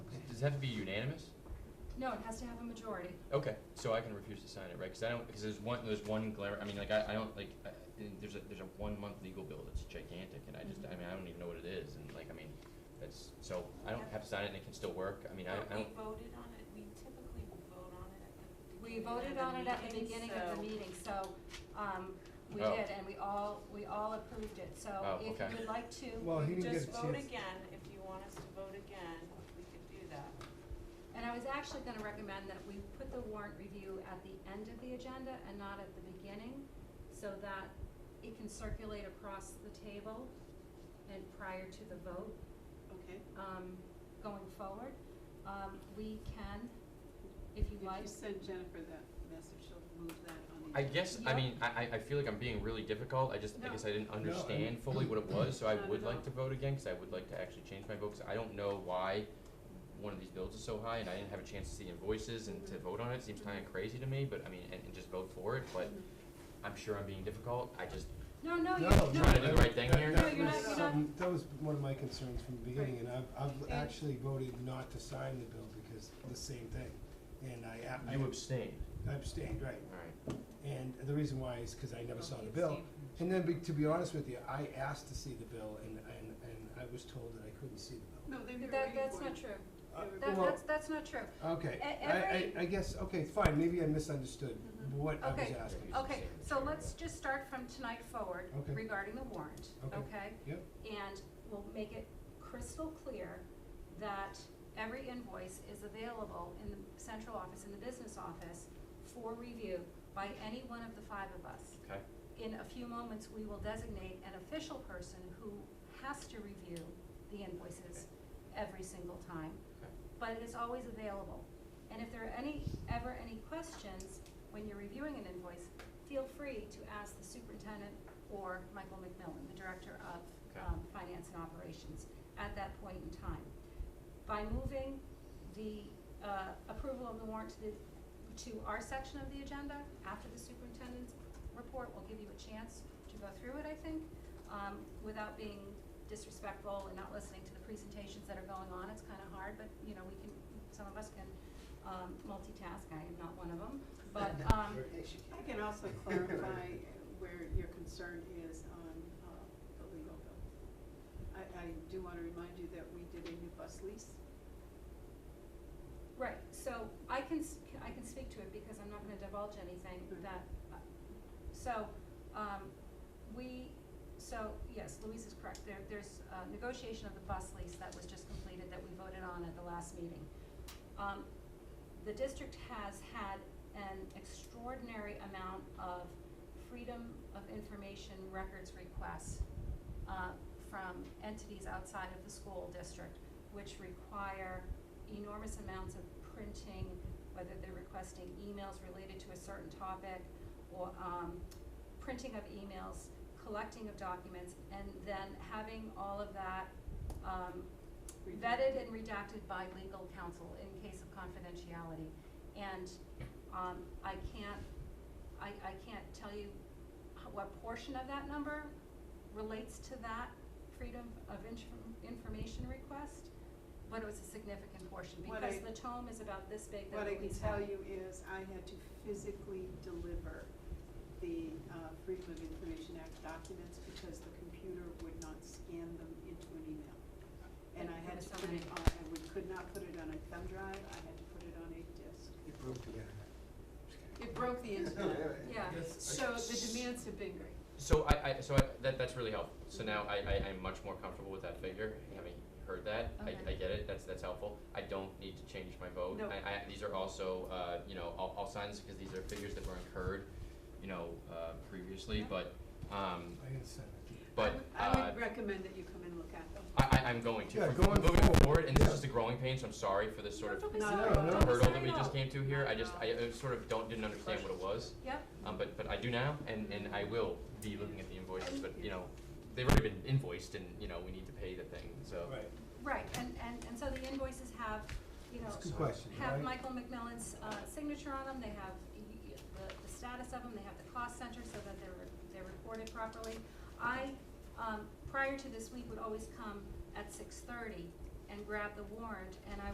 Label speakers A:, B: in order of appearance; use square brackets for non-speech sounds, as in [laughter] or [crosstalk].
A: Does it have to be unanimous?
B: No, it has to have a majority.
A: Okay, so I can refuse to sign it, right? Because I don't, because there's one, there's one glare, I mean, like, I, I don't, like, I- and there's a, there's a one-month legal bill that's gigantic, and I just, I mean, I don't even know what it is, and like, I mean, that's, so, I don't have to sign it and it can still work, I mean, I, I
C: But
A: don't,
C: we voted on it, we typically vote on it at the
B: We
C: beginning
B: voted on it at the beginning of the
C: so-
B: meeting, so, um, we
A: Oh.
B: did, and we all, we all approved it, so
A: Oh,
B: if
A: okay.
B: you would like to,
D: Well, he didn't get a
C: Just vote
D: chance.
C: again, if you want us to vote again, we could do that.
B: and I was actually gonna recommend that we put the warrant review at the end of the agenda and not at the beginning, so that it can circulate across the table and prior to the vote,
C: Okay.
B: um, going forward. Um, we can, if you like,
E: If you send Jennifer that message, she'll move that on the.
A: I guess, I
B: Yep.
A: mean, I, I, I feel like I'm being really difficult, I just, I
E: No.
A: guess I didn't
D: I
A: understand
D: mean-
A: fully what it was, so I
E: Not
A: would
E: at
A: like to
E: all.
A: vote again, because I would like to actually change my vote, because I don't know why one of these bills is so high, and I didn't have a chance to see invoices and to
E: Mhm.
A: vote on it, seems kinda crazy to me, but I mean, and, and just vote for it, but
E: Mhm.
A: I'm sure I'm being difficult, I just,
B: no, no, you,
D: No,
B: no,
D: no.
A: Trying to do the right thing
D: that-
A: here?
D: that
B: No, you're
D: was
B: not- you're
D: something- That was one of my concerns from the beginning, and I've, I've
E: And-
D: actually voted not to sign the bill because of the same thing. And I, ab-
A: you abstained,
D: I abstained, right,
A: alright.
D: and the reason why is because I never
E: Oh,
D: saw
E: he
D: the bill.
E: abstained.
D: And then, be- to be honest with you, I asked to see the bill and, and, and I was told that I couldn't see the bill.
E: No, they were
B: that,
E: waiting
B: that's
E: for
B: not
E: it.
B: true.
D: Uh,
E: they were-
B: That,
D: well,
B: that's, that's not true.
D: Okay,
B: E-
D: I,
B: every- Mm-hmm.
D: I, I guess, okay, fine, maybe I misunderstood
E: Mhm.
D: what I was
B: Okay, Oh.
D: asking.
B: Okay, so let's just start from tonight forward
D: Okay.
B: regarding the warrant,
D: Okay.
B: okay?
D: Yep,
B: And we'll make it crystal clear that every invoice is available in the central office, in the business office, for review by any one of the five of us.
A: Okay,
B: In a few moments, we will designate an official person who has to review the invoices every single time
A: okay.
B: but it is always available. And if there are any, ever any questions when you're reviewing an invoice, feel free to ask the superintendent or Michael McMillan, the director of,
A: Okay.
B: um, finance and operations, at that point in time. By moving the, uh, approval of the warrant to the, to our section of the agenda, after the superintendent's report, we'll give you a chance to go through it, I think, um, without being disrespectful and not listening to the presentations that are going on, it's kinda hard, but, you know, we can, some of us can, um, multitask, I am not one of them,
D: [laughs]
B: but, um,
E: I can also clarify where your concern is on uh, the legal bill. I, I do want to remind you that we did a new bus lease.
B: right, so I can, s- I can speak to it because I'm not gonna divulge anything
E: Right.
B: that, uh, so, um, we, so, yes, Louise is correct, there, there's, uh, negotiation of the bus lease that was just completed that we voted on at the last meeting. Um, the district has had an extraordinary amount of freedom of information records requests uh, from entities outside of the school district, which require enormous amounts of printing, whether they're requesting emails related to a certain topic, or, um, printing of emails, collecting of documents, and then having all of that, um, vetted and redacted by legal counsel in case of confidentiality. And, um, I can't, I, I can't tell you h- what portion of that number relates to that freedom of inf- information request, but it was a significant portion,
E: What
B: because
E: I-
B: the tome is about this big that
E: What I
B: we
E: can tell you is I had to physically deliver the uh, Freedom of Information Act documents because the computer would not scan them into an email. And I
B: There
E: had
B: were
E: to
B: so
E: put it
B: many.
E: on, I would, could not put it on a thumb drive, I had to put it on a disk.
D: it broke together. Just kidding.
E: It broke
D: [laughs]
E: the internet.
B: Yeah.
E: So the demands have been great.
A: So I, I, so I, that, that's really helpful, so now I, I, I'm much more comfortable with that figure, having heard that, I, I
B: Okay.
A: get it, that's, that's helpful. I don't need to change my vote,
E: No.
A: I, I, these are also, uh, you know, I'll, I'll sign this because these are figures that were incurred, you know, uh, previously,
B: Yeah.
A: but, um,
D: I didn't sign it.
A: but,
E: I would- I
A: uh,
E: would recommend that you come and look at them.
A: I, I, I'm going to,
D: Yeah,
A: for
D: going
A: moving
D: forward,
A: forward, and this
D: yeah.
A: is the growing pain, so I'm sorry for this sort of
B: Don't be
E: No,
B: sorry,
D: no, no.
B: don't be
A: hurdle that
B: sorry
A: we
B: at
A: just
B: all.
A: came to here, I just,
C: No.
A: I, uh sort of don't, didn't understand what it was.
B: Yep,
A: Um, but, but I do now, and, and I will be looking at the invoices, but, you know, they've already been invoiced and, you know, we need to pay the thing, so.
D: Right,
B: right, and, and, and so the invoices have, you know,
D: it's a good question, right?
B: have Michael McMillan's uh, signature on them, they have y- y- the the status of them, they have the cost center so that they're, they're reported properly. I, um, prior to this week, would always come at six thirty and grab the warrant, and I